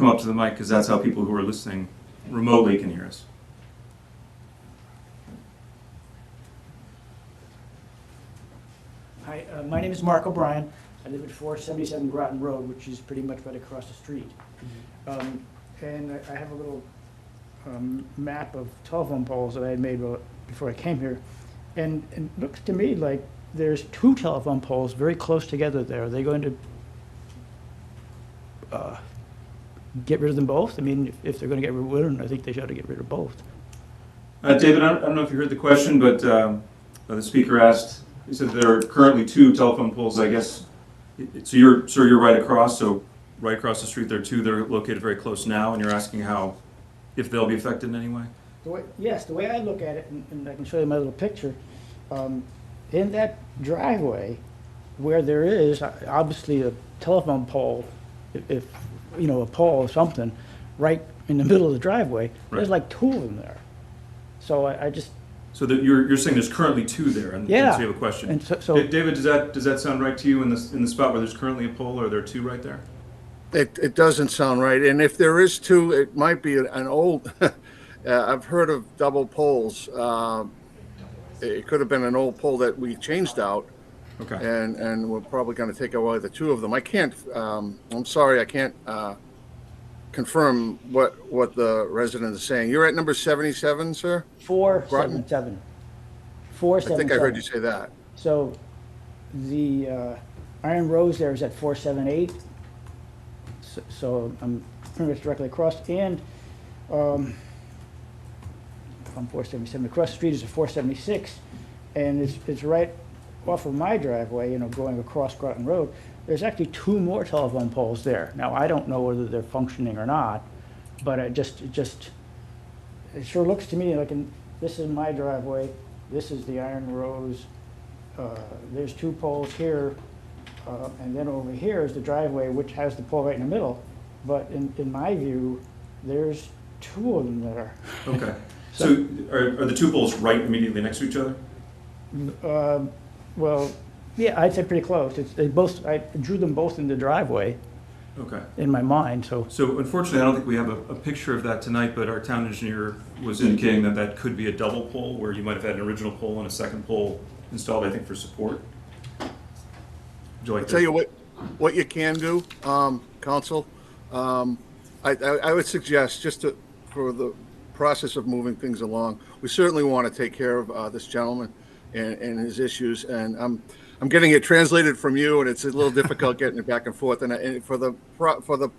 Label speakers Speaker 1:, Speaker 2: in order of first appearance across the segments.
Speaker 1: come up to the mic because that's how people who are listening remotely can hear us.
Speaker 2: Hi, uh, my name is Mark O'Brien. I live at 477 Groton Road, which is pretty much right across the street. Um, And I- I have a little um, map of telephone poles that I had made while- before I came here. And and it looks to me like there's two telephone poles very close together there. Are they going to uh, get rid of them both? I mean, if- if they're going to get rid of one, I think they should get rid of both.
Speaker 1: Uh, David, I don't, I don't know if you heard the question, but um, uh, the speaker asked. He said there are currently two telephone poles. I guess it- it- so. You're sir, you're right across. So right across the street, there are two. They're located very close now, and you're asking how if they'll be affected in any way.
Speaker 2: The way, yes, the way I look at it, and- and I can show you my little picture, um, in that driveway where there is uh, obviously a telephone pole, if- if, you know, a pole or something, right in the middle of the driveway, there's
Speaker 1: Right.
Speaker 2: like two of them there. So I, I just,
Speaker 1: So that you're you're saying there's currently two there, and, and
Speaker 2: Yeah.
Speaker 1: so you have a question.
Speaker 2: and so, so
Speaker 1: Da- David, does that does that sound right to you in the in the spot where there's currently a pole? Are there two right there?
Speaker 3: It, it doesn't sound right. And if there is two, it might be an old, uh, I've heard of double poles. Um, It could have been an old pole that we changed out
Speaker 1: Okay.
Speaker 3: and, and we're probably going to take away the two of them. I can't, um, I'm sorry, I can't, uh, confirm what, what the resident is saying. You're at number 77, sir?
Speaker 2: four, seven,
Speaker 3: Groton?
Speaker 2: seven. Four,
Speaker 3: I
Speaker 2: seven,
Speaker 3: think I heard you
Speaker 2: seven.
Speaker 3: say that.
Speaker 2: So the, uh, Iron Rose there is at four, seven, eight. So- So I'm pretty much directly across, and, um, on four seventy-seven, across the street is a four seventy-six, and it's, it's right off of my driveway, you know, going across Groton Road. There's actually two more telephone poles there. Now, I don't know whether they're functioning or not, but it just, it just, it sure looks to me like, in- this is my driveway, this is the Iron Rose, uh, there's two poles here, uh, and then over here is the driveway, which has the pole right in the middle. But in, in my view, there's two of them that are,
Speaker 1: Okay. So are, are the two poles right immediately next to each other?
Speaker 2: Um, Well, yeah, I'd say pretty close. It's, they both, I drew them both in the driveway
Speaker 1: Okay.
Speaker 2: in my mind, so.
Speaker 1: So unfortunately, I don't think we have a, a picture of that tonight, but our town engineer was indicating that that could be a double pole, where you might have had an original pole and a second pole installed, I think, for support. Would you like
Speaker 3: Tell you
Speaker 1: to?
Speaker 3: what, what you can do, um, council, um, I, I, I would suggest, just to, for the process of moving things along, we certainly want to take care of, uh, this gentleman and, and his issues, and I'm, I'm getting it translated from you, and it's a little difficult getting it back and forth, and, I- and for the, pro- for the,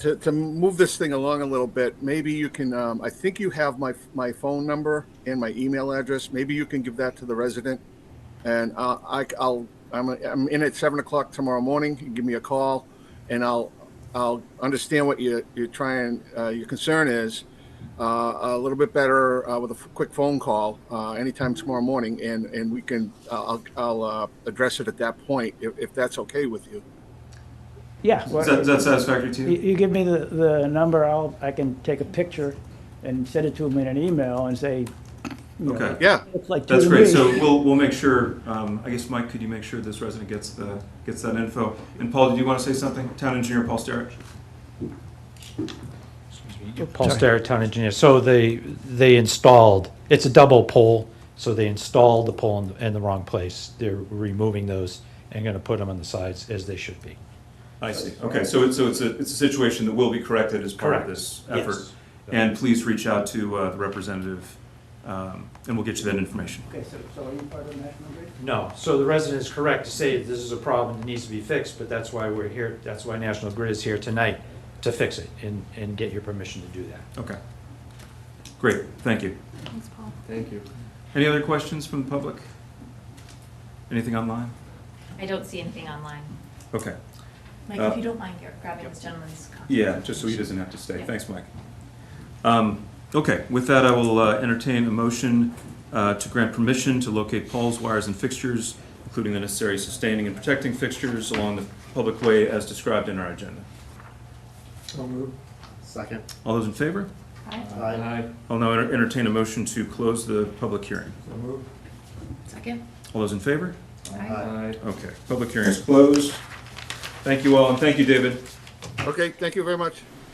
Speaker 3: to, to move this thing along a little bit, maybe you can, um, I think you have my, my phone number and my email address, maybe you can give that to the resident, and uh, I, I'll, I'm, I'm in at seven o'clock tomorrow morning. You give me a call, and I'll, I'll understand what you, you're trying, uh, your concern is, uh, a little bit better uh, with a f- quick phone call uh, anytime tomorrow morning, and and we can, I'll, I'll uh, address it at that point if, if that's okay with you.
Speaker 2: Yeah,
Speaker 1: Is that, is
Speaker 2: well,
Speaker 1: that satisfactory to
Speaker 2: you,
Speaker 1: you?
Speaker 2: you give me the, the number, I'll, I can take a picture and send it to them in an email and say, you know,
Speaker 1: Okay.
Speaker 3: Yeah,
Speaker 2: looks like two
Speaker 1: That's
Speaker 2: to
Speaker 1: great.
Speaker 2: me."
Speaker 1: So we'll, we'll make sure, um, I guess, Mike, could you make sure this resident gets the, gets that info? And Paul, did you want to say something? Town engineer Paul Sterich?
Speaker 4: Paul Starrett, town engineer. So they, they installed, it's a double pole, so they installed the pole in, in the wrong place. They're removing those and gonna put them on the sides as they should be.
Speaker 1: I see. Okay, so it's, so it's a, it's a situation that will be corrected as part of
Speaker 4: Correct.
Speaker 1: this
Speaker 4: Yes.
Speaker 1: effort. And please reach out to, uh, the representative, um, and we'll get you that information.
Speaker 2: Okay, so, so are you part of the National Grid?
Speaker 4: No, so the resident is correct to say that this is a problem that needs to be fixed, but that's why we're here, that's why National Grid is here tonight, to fix it and, and get your permission to do that.
Speaker 1: Okay. Great, thank you.
Speaker 5: Thanks, Paul.
Speaker 6: Thank you.
Speaker 1: Any other questions from the public? Anything online?
Speaker 5: I don't see anything online.
Speaker 1: Okay.
Speaker 5: Mike,
Speaker 1: Uh,
Speaker 5: if you don't mind gra- grabbing this gentleman's copy.
Speaker 1: Yeah, just so he doesn't have to stay. Thanks, Mike. Um, Okay, with that, I will uh, entertain a motion uh, to grant permission to locate poles, wires, and fixtures, including the necessary sustaining and protecting fixtures along the public way as described in our agenda.
Speaker 6: So moved. Second.
Speaker 1: All those in favor?
Speaker 5: Aye.
Speaker 6: Aye.
Speaker 1: I'll now enter- entertain a motion to close the public hearing.
Speaker 6: So moved.
Speaker 5: Second?
Speaker 1: All those in favor?
Speaker 5: Aye.
Speaker 1: Okay, public hearing is closed. Thank you all, and thank you, David.
Speaker 6: All
Speaker 3: Okay, thank you very much.